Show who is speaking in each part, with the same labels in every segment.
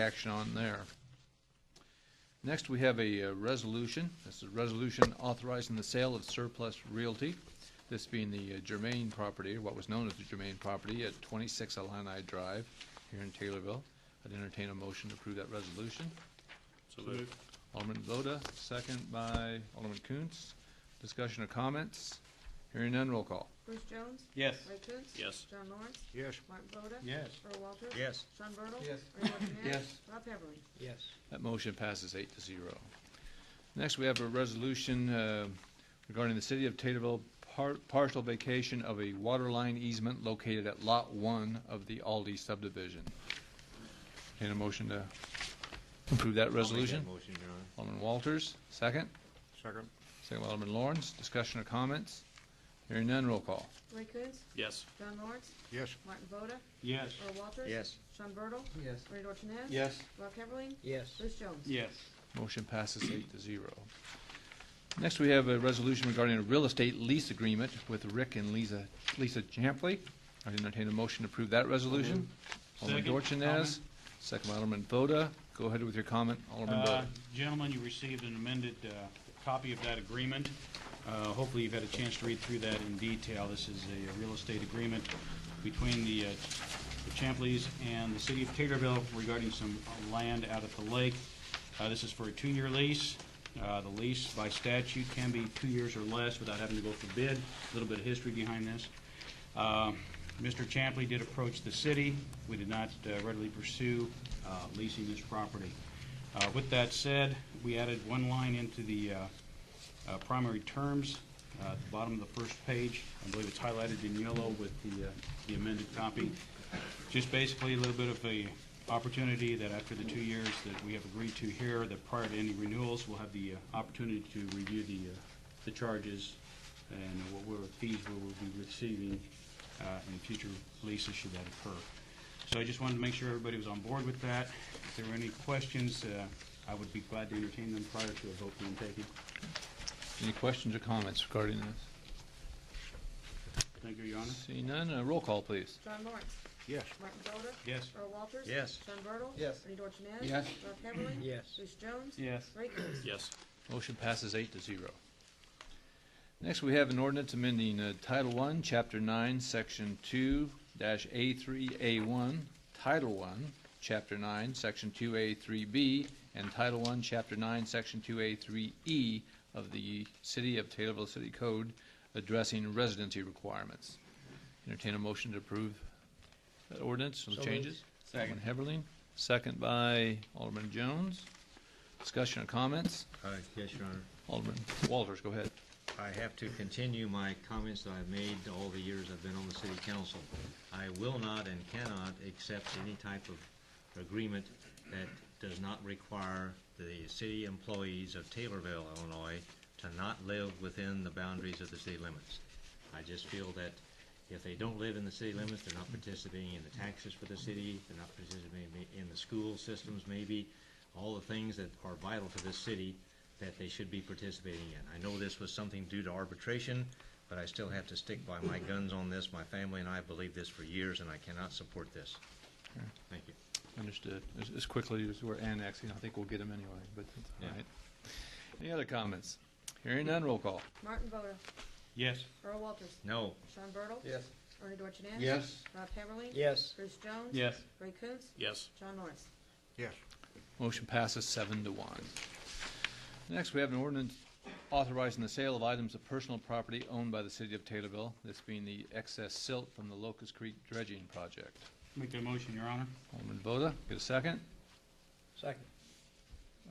Speaker 1: action on there. Next, we have a uh, resolution. This is a resolution authorizing the sale of surplus realty, this being the uh, Germain property, what was known as the Germain property at 26 Illini Drive here in Taylorville. I'd entertain a motion to approve that resolution.
Speaker 2: So moved.
Speaker 1: Alderman Voda, second by Alderman Kuntz. Discussion or comments? Hearing none, roll call.
Speaker 3: Bruce Jones?
Speaker 4: Yes.
Speaker 3: Ray Coontz?
Speaker 2: Yes.
Speaker 3: John Lawrence?
Speaker 5: Yes.
Speaker 3: Martin Voda?
Speaker 4: Yes.
Speaker 3: Earl Walters?
Speaker 5: Yes.
Speaker 3: Sean Bertle?
Speaker 4: Yes.
Speaker 3: Ray Martinez?
Speaker 4: Yes.
Speaker 3: Rob Heatherly?
Speaker 4: Yes.
Speaker 1: That motion passes eight to zero. Next, we have a resolution uh, regarding the City of Taterville par- partial vacation of a water line easement located at Lot 1 of the Aldi subdivision. Entertain a motion to approve that resolution?
Speaker 5: motion, Your Honor.
Speaker 1: Alderman Walters, second.
Speaker 5: Second.
Speaker 1: Second by Alderman Lawrence. Discussion or comments? Hearing none, roll call.
Speaker 3: Ray Coontz?
Speaker 2: Yes.
Speaker 3: John Lawrence?
Speaker 5: Yes.
Speaker 3: Martin Voda?
Speaker 4: Yes.
Speaker 3: Earl Walters?
Speaker 5: Yes.
Speaker 3: Sean Bertle?
Speaker 4: Yes.
Speaker 3: Ray Martinez?
Speaker 4: Yes.
Speaker 3: Rob Heatherly?
Speaker 4: Yes.
Speaker 3: Bruce Jones?
Speaker 4: Yes.
Speaker 1: Motion passes eight to zero. Next, we have a resolution regarding a real estate lease agreement with Rick and Lisa, Lisa Champley. I entertain a motion to approve that resolution. Alderman
Speaker 6: Second,
Speaker 1: Dorchenez, second by Alderman Voda. Go ahead with your comment, Alderman
Speaker 6: Uh,
Speaker 1: Voda.
Speaker 6: Gentlemen, you received an amended uh, copy of that agreement. Uh, Hopefully, you've had a chance to read through that in detail. This is a real estate agreement between the uh, the Champleys and the city of Taterville regarding some uh, land out at the lake. Uh, This is for a two-year lease. Uh, The lease by statute can be two years or less without having to go for bid. A little bit of history behind this. Uh, Mr. Champley did approach the city. We did not uh, readily pursue uh, leasing this property. Uh, With that said, we added one line into the uh, uh, primary terms, uh, at the bottom of the first page. I believe it's highlighted in yellow with the uh, the amended copy. Just basically a little bit of a opportunity that after the two years that we have agreed to here, that prior to any renewals, we'll have the uh, opportunity to review the, uh, the charges and what we're, fees we will be receiving uh, in future leases should that occur. So I just wanted to make sure everybody was on board with that. If there were any questions, uh, I would be glad to entertain them prior to a vote being taken.
Speaker 1: Any questions or comments regarding this?
Speaker 6: Thank you, Your Honor.
Speaker 1: Seeing none, uh, roll call, please.
Speaker 3: John Lawrence?
Speaker 5: Yes.
Speaker 3: Martin Voda?
Speaker 6: Yes.
Speaker 3: Earl Walters?
Speaker 5: Yes.
Speaker 3: Sean Bertle?
Speaker 4: Yes.
Speaker 3: Ray Martinez?
Speaker 1: Yes.
Speaker 3: Rob Heatherly?
Speaker 4: Yes.
Speaker 3: Bruce Jones?
Speaker 6: Yes.
Speaker 3: Ray Coontz?
Speaker 2: Yes.
Speaker 1: Motion passes eight to zero. Next, we have an ordinance amending uh, Title One, Chapter Nine, Section Two dash A three A one, Title One, Chapter Nine, Section Two A three B, and Title One, Chapter Nine, Section Two A three E of the City of Taylorville City Code addressing residency requirements. Entertain a motion to approve that ordinance with changes. Alderman Heberlin, second by Alderman Jones. Discussion or comments?
Speaker 5: Uh, Yes, Your Honor.
Speaker 1: Alderman Walters, go ahead.
Speaker 5: I have to continue my comments that I've made all the years I've been on the city council. I will not and cannot accept any type of agreement that does not require the city employees of Taylorville, Illinois, to not live within the boundaries of the city limits. I just feel that if they don't live in the city limits, they're not participating in the taxes for the city, they're not participating in the school systems maybe, all the things that are vital to this city that they should be participating in. I know this was something due to arbitration, but I still have to stick by my guns on this. My family and I believe this for years, and I cannot support this. Thank you.
Speaker 1: Understood. As- As quickly as we're annexing, I think we'll get them anyway, but that's all
Speaker 5: Yeah.
Speaker 1: right. Any other comments? Hearing none, roll call.
Speaker 3: Martin Voda?
Speaker 6: Yes.
Speaker 3: Earl Walters?
Speaker 5: No,
Speaker 3: Sean Bertle?
Speaker 4: Yes.
Speaker 3: Bernie Dorchenez?
Speaker 4: Yes.
Speaker 3: Rob Heatherly?
Speaker 4: Yes.
Speaker 3: Bruce Jones?
Speaker 6: Yes.
Speaker 3: Ray Coontz?
Speaker 2: Yes.
Speaker 3: John Lawrence?
Speaker 1: Motion passes seven to one. Next, we have an ordinance authorizing the sale of items of personal property owned by the city of Taylorville, this being the excess silt from the Locust Creek dredging project.
Speaker 6: Make that motion, Your Honor.
Speaker 1: Alderman Voda, get a second.
Speaker 4: Second.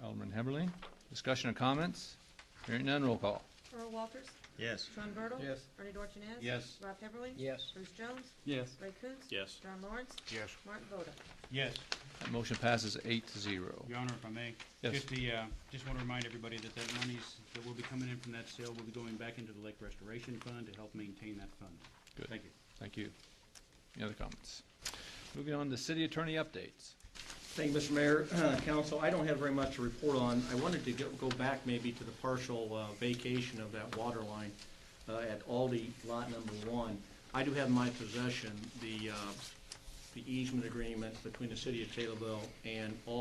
Speaker 1: Alderman Heberlin, discussion or comments? Hearing none, roll call.
Speaker 3: Earl Walters?
Speaker 5: yes,
Speaker 3: Sean Bertle?
Speaker 4: Yes.
Speaker 3: Bernie Dorchenez?
Speaker 6: Yes.
Speaker 3: Rob Heatherly?
Speaker 4: Yes.
Speaker 3: Bruce Jones?
Speaker 6: Yes.
Speaker 3: Ray Coontz?
Speaker 2: Yes.
Speaker 3: John Lawrence?
Speaker 5: Yes.
Speaker 3: Martin Voda?
Speaker 6: Yes.
Speaker 1: That motion passes eight to zero.
Speaker 6: Your Honor, if I may.
Speaker 1: Yes.
Speaker 6: Just the, uh, just want to remind everybody that that monies that will be coming in from that sale will be going back into the Lake Restoration Fund to help maintain that fund.
Speaker 1: Good.
Speaker 6: Thank you.
Speaker 1: Thank you. Any other comments? Moving on to city attorney updates.
Speaker 7: Thank you, Mr. Mayor, uh, Council. I don't have very much to report on. I wanted to go go back maybe to the partial uh, vacation of that water line uh, at Aldi Lot Number One. I do have in my possession the uh, the easement agreement between the City of Taylorville and Aldi.